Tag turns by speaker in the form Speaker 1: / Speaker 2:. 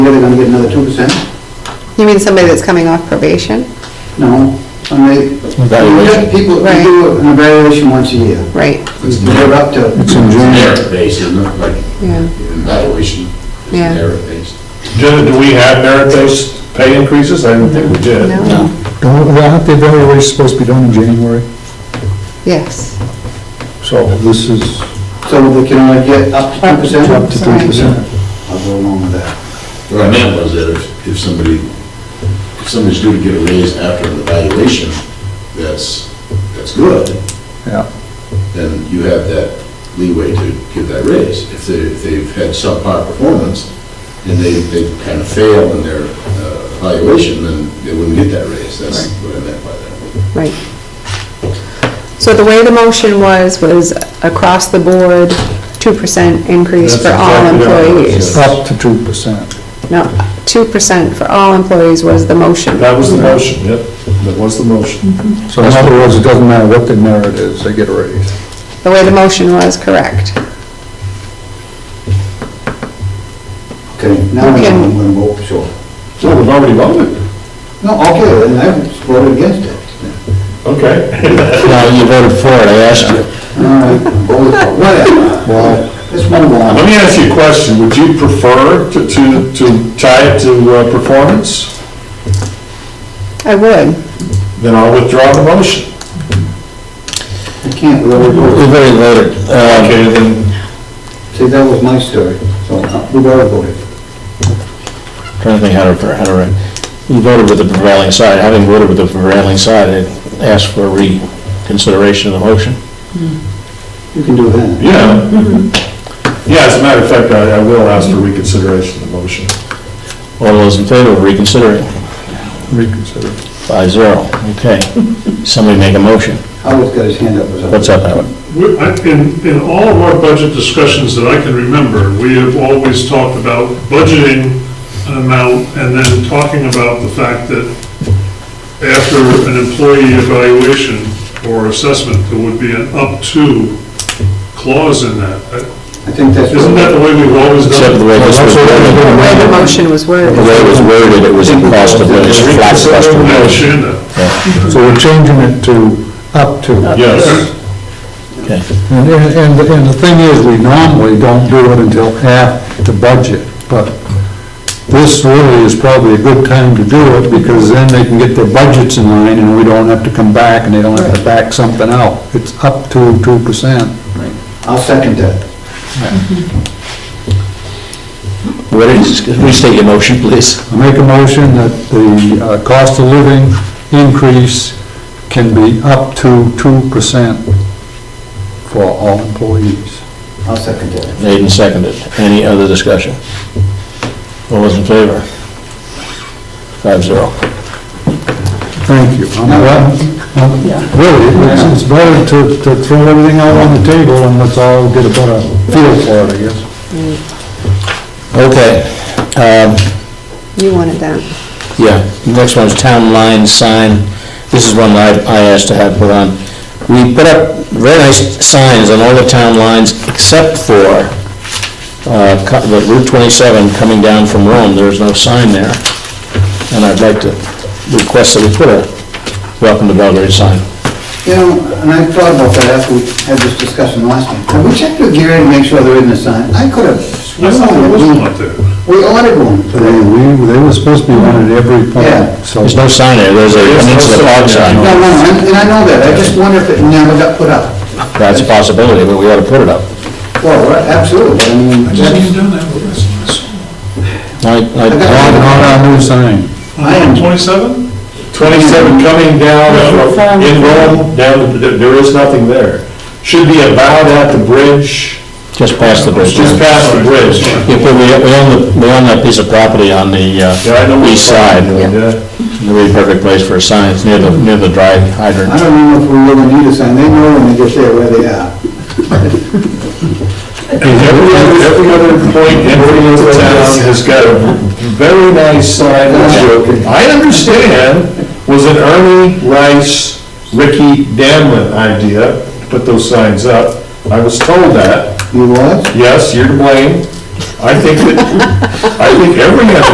Speaker 1: they're gonna get another two percent?
Speaker 2: You mean somebody that's coming off probation?
Speaker 1: No, somebody, we
Speaker 3: Evaluation.
Speaker 1: have people, we do an evaluation once a year.
Speaker 2: Right,
Speaker 1: They're up to,
Speaker 3: It's in June.
Speaker 4: merit-based, isn't it? Like,
Speaker 2: yeah.
Speaker 4: evaluation is
Speaker 2: Yeah.
Speaker 4: merit-based.
Speaker 5: Do do we have merit-based pay increases? I didn't think we did.
Speaker 2: No?
Speaker 3: Don't- well, aren't The evaluation's supposed to be done in January,
Speaker 2: Yes.
Speaker 5: So
Speaker 3: this is
Speaker 1: so they can only get up to two percent?
Speaker 3: up to two percent.
Speaker 1: I'll go along with that.
Speaker 4: What I meant was that if, if somebody, if somebody's due to get a raise after an evaluation, that's, that's good,
Speaker 3: Yeah,
Speaker 4: then you have that leeway to give that raise. If they, if they've had subpar performance and they, they kind of fail in their uh, evaluation, then they wouldn't get that raise. That's what I meant by that.
Speaker 2: Right. So the way the motion was, was across the board, 2% increase for
Speaker 5: That's
Speaker 2: all
Speaker 5: exactly what it
Speaker 2: employees.
Speaker 5: was,
Speaker 3: up to two percent.
Speaker 2: No, 2% for all employees was the motion.
Speaker 5: that was the motion, yep, that was the motion.
Speaker 3: So in other words, it doesn't matter what the merit is, they get a raise.
Speaker 2: The way the motion was, correct.
Speaker 1: Okay, now
Speaker 2: Okay.
Speaker 1: I'm gonna vote, sure.
Speaker 5: So we've already voted.
Speaker 1: No, okay, then I voted against it.
Speaker 5: Okay.
Speaker 3: No, you voted for it, I asked you.
Speaker 1: All right, voted for- whatever. Well, let's move
Speaker 5: Let
Speaker 1: on.
Speaker 5: me ask you a question. Would you prefer to, to, to tie it to uh, performance?
Speaker 2: I would.
Speaker 5: Then I'll withdraw the motion.
Speaker 1: I can't really vote.
Speaker 3: We've already voted.
Speaker 6: um,
Speaker 5: Okay, then,
Speaker 1: See, that was my story, so uh, we voted for it.
Speaker 6: Trying to think how to, how to, write. you voted with the prevailing side, having voted with the prevailing side, it asked for reconsideration of the motion.
Speaker 1: You can do that.
Speaker 5: yeah.
Speaker 3: Mm-hmm.
Speaker 5: Yeah, as a matter of fact, I, I will ask for reconsideration of the motion.
Speaker 6: All those in favor of reconsidering,
Speaker 3: Reconsider.
Speaker 6: five zero, okay. Somebody make a motion.
Speaker 1: Howard's got his hand up or something.
Speaker 6: What's up, Howard?
Speaker 7: We- I- In, in all of our budget discussions that I can remember, we have always talked about budgeting an amount and then talking about the fact that after an employee evaluation or assessment, there would be an up to clause in that. Uh,
Speaker 1: I think that's.
Speaker 7: Isn't that the way we've always
Speaker 6: Except for the
Speaker 7: done it?
Speaker 6: way this was
Speaker 2: The
Speaker 6: worded,
Speaker 2: way the motion was worded.
Speaker 6: the way it was worded, it was a cost of, it was a flat cost of
Speaker 7: I
Speaker 6: motion.
Speaker 7: understand that.
Speaker 3: So we're changing it to up to.
Speaker 5: Yes.
Speaker 6: Okay.
Speaker 3: And, and, and the thing is, we normally don't do it until after the budget, but this really is probably a good time to do it, because then they can get their budgets in line, and we don't have to come back, and they don't have to back something out. It's up to two percent.
Speaker 1: I'll second that.
Speaker 6: What is, restate your motion, please.
Speaker 3: I make a motion that the uh, cost of living increase can be up to two percent for all employees.
Speaker 1: I'll second that.
Speaker 6: Made and seconded. Any other discussion? All those in favor? Five zero.
Speaker 3: Thank you. I'm glad- I'm- Really, it's it's better to, to throw everything out on the table and let's all get a better feel for it, I guess.
Speaker 6: Okay, um,
Speaker 2: You wanted that.
Speaker 6: Yeah, next one is town line sign. This is one that I I asked to have put on. We put up very nice signs on all the town lines except for uh, co- the Route 27 coming down from Rome. There's no sign there. And I'd like to request that we put a welcome to Belgrade sign.
Speaker 1: You know, and I thought about that after we had this discussion last time. Have we checked with Gary to make sure there isn't a sign? I could have
Speaker 7: I
Speaker 1: sworn
Speaker 7: thought there was one
Speaker 1: that
Speaker 7: up there.
Speaker 1: we, we ordered one for
Speaker 3: They,
Speaker 1: them.
Speaker 3: we, they were supposed to be on at every
Speaker 1: Yeah.
Speaker 3: point, so.
Speaker 6: There's no sign there, there's a, I mean, it's a
Speaker 1: No,
Speaker 6: dog sign.
Speaker 1: no, and and I know that, I just wonder if it never got put up.
Speaker 6: That's a possibility, but we ought to put it up.
Speaker 1: Well, right, absolutely, but I mean, that's-
Speaker 7: done that with us.
Speaker 6: I- I-
Speaker 3: On, on our new sign.
Speaker 1: I am-
Speaker 7: Twenty-seven?
Speaker 5: 27 coming down from- in Rome, down, there there is nothing there. Should be about at the bridge,
Speaker 6: Just past the bridge.
Speaker 5: just past the bridge.
Speaker 6: Yeah, but we we own, the- we own that piece of property on the
Speaker 5: Yeah, I know
Speaker 6: uh,
Speaker 5: what
Speaker 6: east
Speaker 5: you're
Speaker 6: side.
Speaker 5: talking about, yeah.
Speaker 6: It would be a perfect place for a sign, it's near the, near the dry hydrant.
Speaker 1: I don't even know if we really need a sign, they know when they get there where they are.
Speaker 5: Every other, every other point in the town has got a very nice sign, which I understand was an Ernie Rice, Ricky Danlin idea, to put those signs up. I was told that,
Speaker 1: You was?
Speaker 5: yes, you're to blame. I think that, I think every other